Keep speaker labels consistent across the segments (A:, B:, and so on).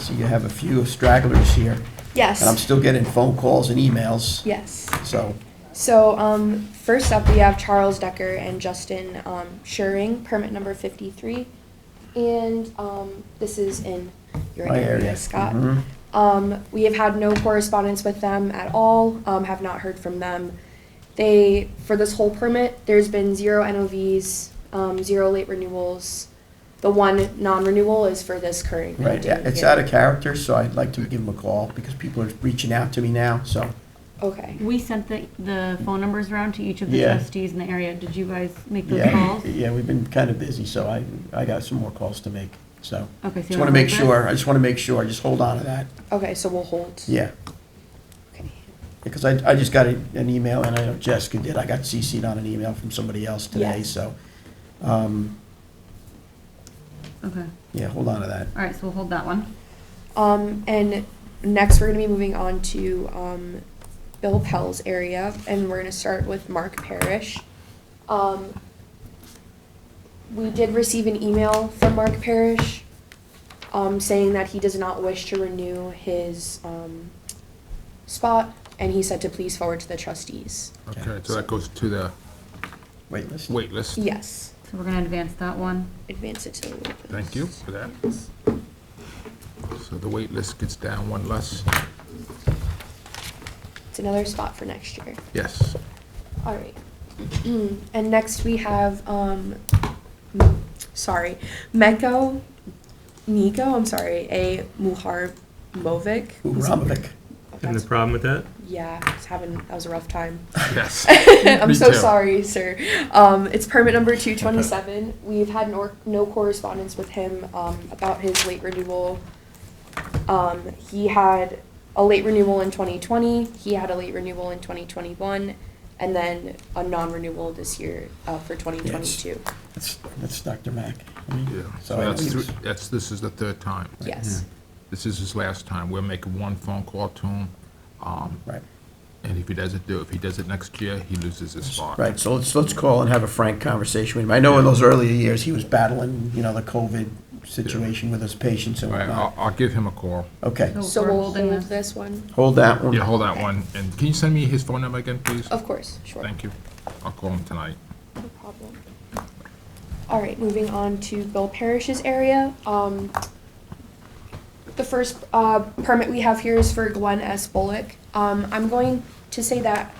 A: so you have a few stragglers here. And I'm
B: Yes,
A: still getting phone calls and emails,
B: yes.
A: so,
B: So, um, first up, we have Charles Decker and Justin, um, Schuring, permit number fifty-three. And, um, this is in your
A: my area.
B: area, Scott.
A: Mhm.
B: Um, we have had no correspondence with them at all, um, have not heard from them. They, for this whole permit, there's been zero NOVs, um, zero late renewals. The one non-renewal is for this current.
A: Right, yeah, it's out of character, so I'd like to give them a call, because people are reaching out to me now, so.
B: Okay,
C: We sent the, the phone numbers around to each of the
A: Yeah.
C: trustees in the area. Did you guys make those
A: Yeah,
C: calls?
A: yeah, we've been kind of busy, so I, I got some more calls to make, so.
C: Okay, so.
A: Just want to make
C: we're-
A: sure, I just want to make sure, just hold on to that,
B: okay, so we'll hold.
A: yeah.
B: Okay.
A: Because I, I just got a- an email, and I know Jessica did, I got CC'd on an email from somebody else today,
B: Yes.
A: so, um,
C: Okay,
A: yeah, hold on to that.
C: all right, so we'll hold that one.
B: Um, and next, we're gonna be moving on to, um, Bill Pell's area, and we're gonna start with Mark Parrish. Um, we did receive an email from Mark Parrish, um, saying that he does not wish to renew his, um, spot, and he said to please forward to the trustees.
A: Okay.
D: Okay, so that goes to the
A: Wait, listen.
D: wait list.
B: Yes,
C: So we're gonna advance that one.
B: advance it to the. waitlist.
D: Thank you for that. So the wait list gets down one less.
B: It's another spot for next year.
D: Yes.
B: All right. and next we have, um, sorry, Meko, Nico, I'm sorry, a Muhar Movic. who's-
A: Uramovic.
B: oh,
E: Having a
B: that's-
E: problem with that?
B: Yeah, it's having, that was a rough time.
D: Yes.
B: I'm
D: Me
B: so
D: too.
B: sorry, sir. Um, it's permit number 227. We've had no, no correspondence with him um, about his late renewal. Um, he had a late renewal in 2020, he had a late renewal in 2021, and then a non renewal this year uh, for 2022.
A: That's, that's Dr. Mack. I
D: Yeah.
A: mean,
D: So
A: I
D: that's,
A: think
D: thr-
A: it's-
D: that's, this is the third time.
B: Yes.
D: This is his last time. We're making one phone call to him. um,
A: Right,
D: And if he doesn't do, if he does it next year, he loses his spot.
A: right, so let's, let's call and have a frank conversation with him. I know in those earlier years, he was battling, you know, the COVID situation with his patients and
D: All right, I'll,
A: whatnot.
D: I'll give him a call.
A: Okay,
C: So
B: So
C: we're
B: we'll
C: holding
B: hold
C: this.
B: this one.
A: hold that
D: Yeah,
A: one.
D: hold that one. And can you send me his phone number again, please?
B: Of course, sure.
D: Thank you. I'll call him tonight.
B: No problem. All right, moving on to Bill Parrish's area. Um, the first uh, permit we have here is for Glenn S. Bullock. Um, I'm going to say that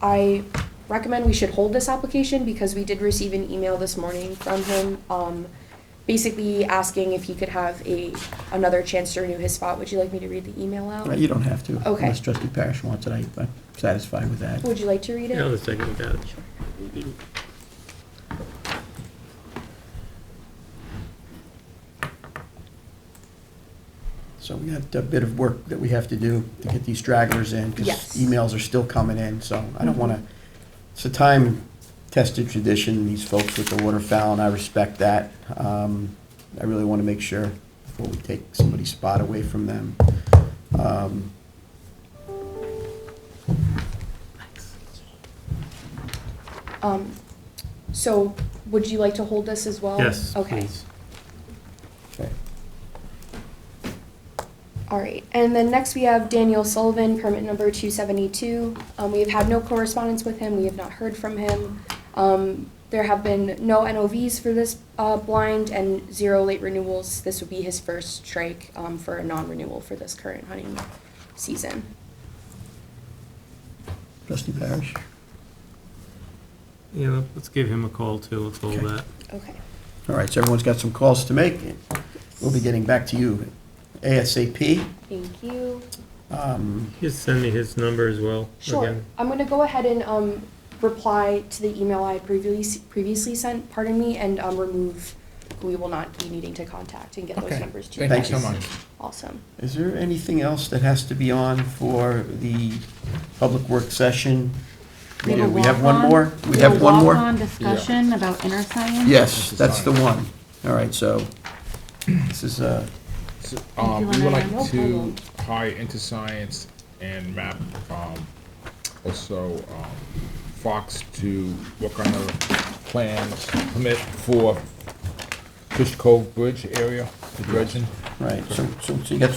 B: I recommend we should hold this application because we did receive an email this morning from him, um, basically asking if he could have a another chance to renew his spot. Would you like me to read the email
A: All right,
B: out?
A: You don't have to.
B: Okay.
A: Unless trustee Parish wants it, I- I'm satisfied with that.
B: Would you like to read it?
E: Yeah, I'll second that.
A: So we got a bit of work that we have to do to get these stragglers in, because
B: Yes.
A: emails are still coming in, so I don't want to, it's a time-tested tradition, these folks with the waterfowl, and I respect that. Um, I really want to make sure before we take somebody's spot away from them. Um,
B: Um, so, would you like to hold this as well?
E: Yes,
B: Oh, Okay.
E: please.
A: okay.
B: All right, and then next we have Daniel Sullivan, permit number two seventy-two. Um, we have had no correspondence with him, we have not heard from him. Um, there have been no NOVs for this, uh, blind and zero late renewals. This would be his first strike, um, for a non-renewal for this current hunting season.
A: Trustee Parish?
E: Yeah, let's give him a call too, let's hold
A: Okay.
E: that.
B: Okay.
A: All right, so everyone's got some calls to make. We'll be getting back to you ASAP.
B: Thank you.
A: Um,
E: Just send me his number as well.
B: Sure.
E: again.
B: I'm gonna go ahead and, um, reply to the email I previously, previously sent, pardon me, and, um, remove who we will not be needing to contact and get those
D: Okay.
B: numbers to you
D: Thank you so
B: guys.
D: much.
B: Awesome.
A: Is there anything else that has to be on for the public work session? We do, we have one more? We have one more?
C: Walk-on discussion about inner science?
A: Yes, that's the one. All right, so this is, uh,
D: So,
C: you,
D: um, we would
C: Lorena.
B: No
D: like to
B: problem.
D: hire into science and map, um, also, um, Fox to work on the plans permit for Fish Cove Bridge area, the dredging.
A: right, so, so so you got three